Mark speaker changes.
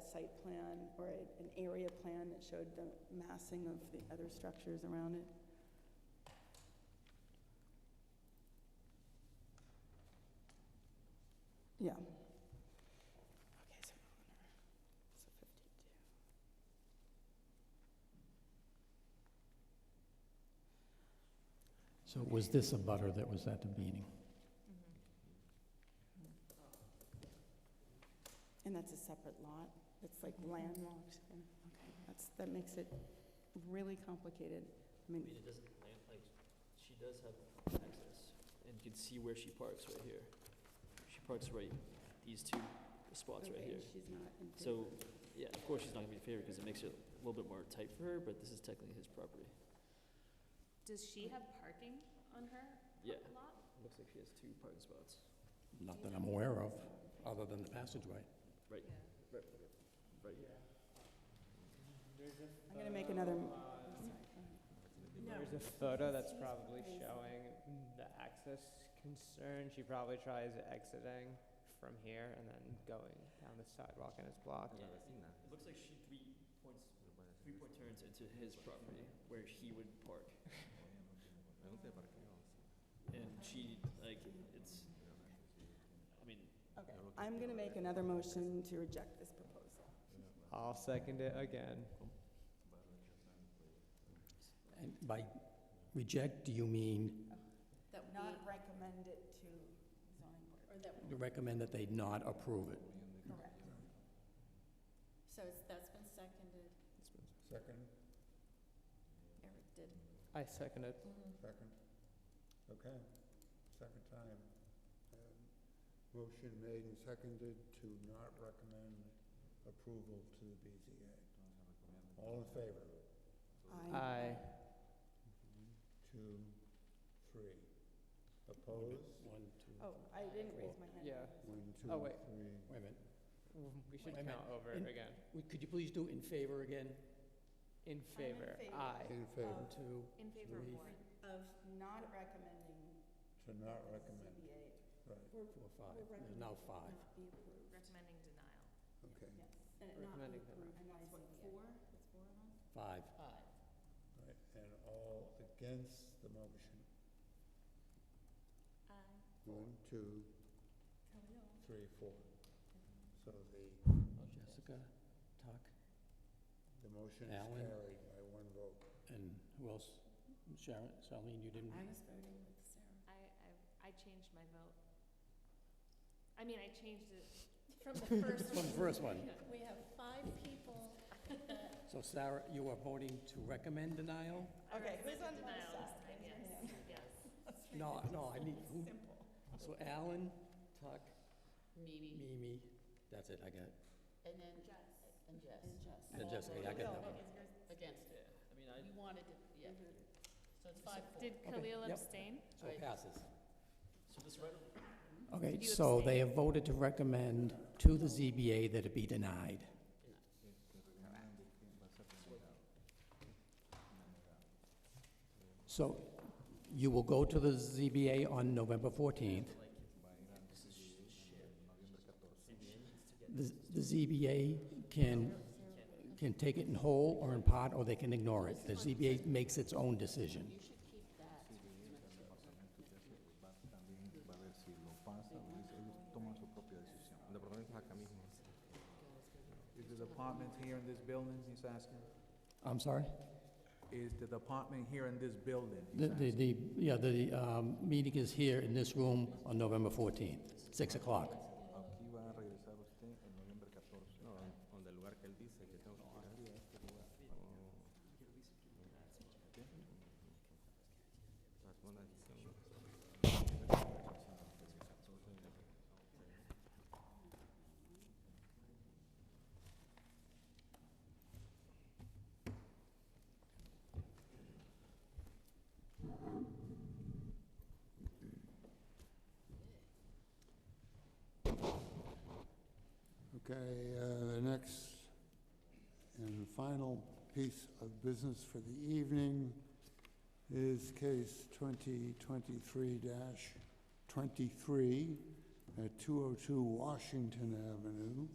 Speaker 1: site plan or a- an area plan that showed the massing of the other structures around it? Yeah. Okay, so we're on our- so 52.
Speaker 2: So was this a butter that was at the meeting?
Speaker 1: And that's a separate lot? It's like landlocked? Mm-hmm. yeah, Okay, that's, that makes it really complicated. I
Speaker 3: I mean,
Speaker 1: mean,
Speaker 3: it doesn't land, like, she does have access, and you can see where she parks right here. She parks right, these two spots right
Speaker 1: okay,
Speaker 3: here.
Speaker 1: she's not in favor.
Speaker 3: So, yeah, of course, she's not gonna be favored, because it makes it a little bit more tight for her, but this is technically his property.
Speaker 4: Does she have parking on her
Speaker 3: Yeah,
Speaker 4: lot?
Speaker 3: looks like she has two parking spots.
Speaker 2: Not that I'm aware of, other than the passageway.
Speaker 3: Right. Right, right here.
Speaker 1: I'm gonna make another, m- Uh, sorry, go ahead.
Speaker 5: There's a photo that's probably showing the access concern. She probably tries exiting from here and then going down the sidewalk and it's blocked.
Speaker 3: Yeah, It looks like she three points, three point turns into his property, where he would park. And she, like, it's, I mean,
Speaker 1: okay. I'm gonna make another motion to reject this proposal.
Speaker 5: I'll second it again.
Speaker 2: And by reject, do you mean
Speaker 4: That we,
Speaker 1: Not recommend it to zoning board.
Speaker 4: or that,
Speaker 2: recommend that they not approve it?
Speaker 1: Correct.
Speaker 4: so it's, that's been seconded,
Speaker 6: Second,
Speaker 4: Eric did.
Speaker 5: I second it.
Speaker 1: Mm-hmm.
Speaker 6: second. Okay, second time. Um, Motion made and seconded to not recommend approval to the BZA. All in favor?
Speaker 5: Aye.
Speaker 6: Two, three. Opposed?
Speaker 2: One, two,
Speaker 1: Oh, I didn't raise my hand.
Speaker 5: Yeah.
Speaker 6: One, two,
Speaker 5: Oh, wait.
Speaker 6: three.
Speaker 2: wait a minute.
Speaker 5: We
Speaker 2: Wait
Speaker 5: should
Speaker 2: a minute.
Speaker 5: count over
Speaker 2: In-
Speaker 5: it again.
Speaker 2: Would- Could you please do in favor again?
Speaker 5: In favor,
Speaker 1: favor.
Speaker 5: aye.
Speaker 6: In favor,
Speaker 2: One, two,
Speaker 4: In
Speaker 2: favor of what?
Speaker 1: Of not recommending.
Speaker 6: to not recommend,
Speaker 1: CBA
Speaker 2: four,
Speaker 6: right,
Speaker 2: five. There's now five.
Speaker 1: not be approved.
Speaker 4: Recommending denial.
Speaker 6: okay,
Speaker 1: Yes, and it not be
Speaker 5: Recommending that.
Speaker 1: approved. by CBA.
Speaker 4: That's four of us?
Speaker 2: Five.
Speaker 4: Aye.
Speaker 6: right. And all against the motion.
Speaker 4: Aye.
Speaker 6: One, two,
Speaker 4: Hello.
Speaker 6: three, four. So the,
Speaker 2: Jessica, Tuck,
Speaker 6: the motion is
Speaker 2: Alan?
Speaker 6: carried by one vote.
Speaker 2: and who else? Sharon, Charlene, you didn't?
Speaker 1: I was voting with Sarah.
Speaker 4: I, I, I changed my vote. I mean, I changed it from the first.
Speaker 2: From the first one.
Speaker 4: We have five people.
Speaker 2: So Sarah, you are voting to recommend denial?
Speaker 1: Okay, who's on my
Speaker 4: Denial this
Speaker 1: side?
Speaker 4: time,
Speaker 1: Raise your
Speaker 4: yes,
Speaker 1: hand.
Speaker 4: yes.
Speaker 2: No, no, I need, who?
Speaker 1: Simple.
Speaker 2: So Alan, Tuck,
Speaker 7: Mimi,
Speaker 2: Mimi, that's it, I got it.
Speaker 7: and then, and Jess,
Speaker 2: And Jessica, I got
Speaker 1: No,
Speaker 2: that one.
Speaker 7: against it.
Speaker 3: yeah, I mean, I,
Speaker 7: You wanted it, yeah, so it's five, four.
Speaker 4: Did
Speaker 2: Okay,
Speaker 4: Khalil
Speaker 2: yep.
Speaker 4: abstain?
Speaker 2: So it passes.
Speaker 3: so this right,
Speaker 2: Okay,
Speaker 4: Did you
Speaker 2: so they
Speaker 4: abstain?
Speaker 2: have voted to recommend to the ZBA that it be denied. So you will go to the ZBA on November 14th. The the ZBA can, can take it in whole or in part, or they can ignore it. The ZBA makes its own decision.
Speaker 7: You should keep that.
Speaker 8: Is the department here in this building, he's asking?
Speaker 2: I'm sorry?
Speaker 8: Is the department here in this building?
Speaker 2: The,
Speaker 8: he's
Speaker 2: the,
Speaker 8: asking?
Speaker 2: the, yeah, the um, meeting is here in this room on November 14th, 6 o'clock.
Speaker 8: Aquí va a regresar usted en noviembre 14.
Speaker 6: Okay, uh, the next and final piece of business for the evening is case 2023-23 at 202 Washington Avenue.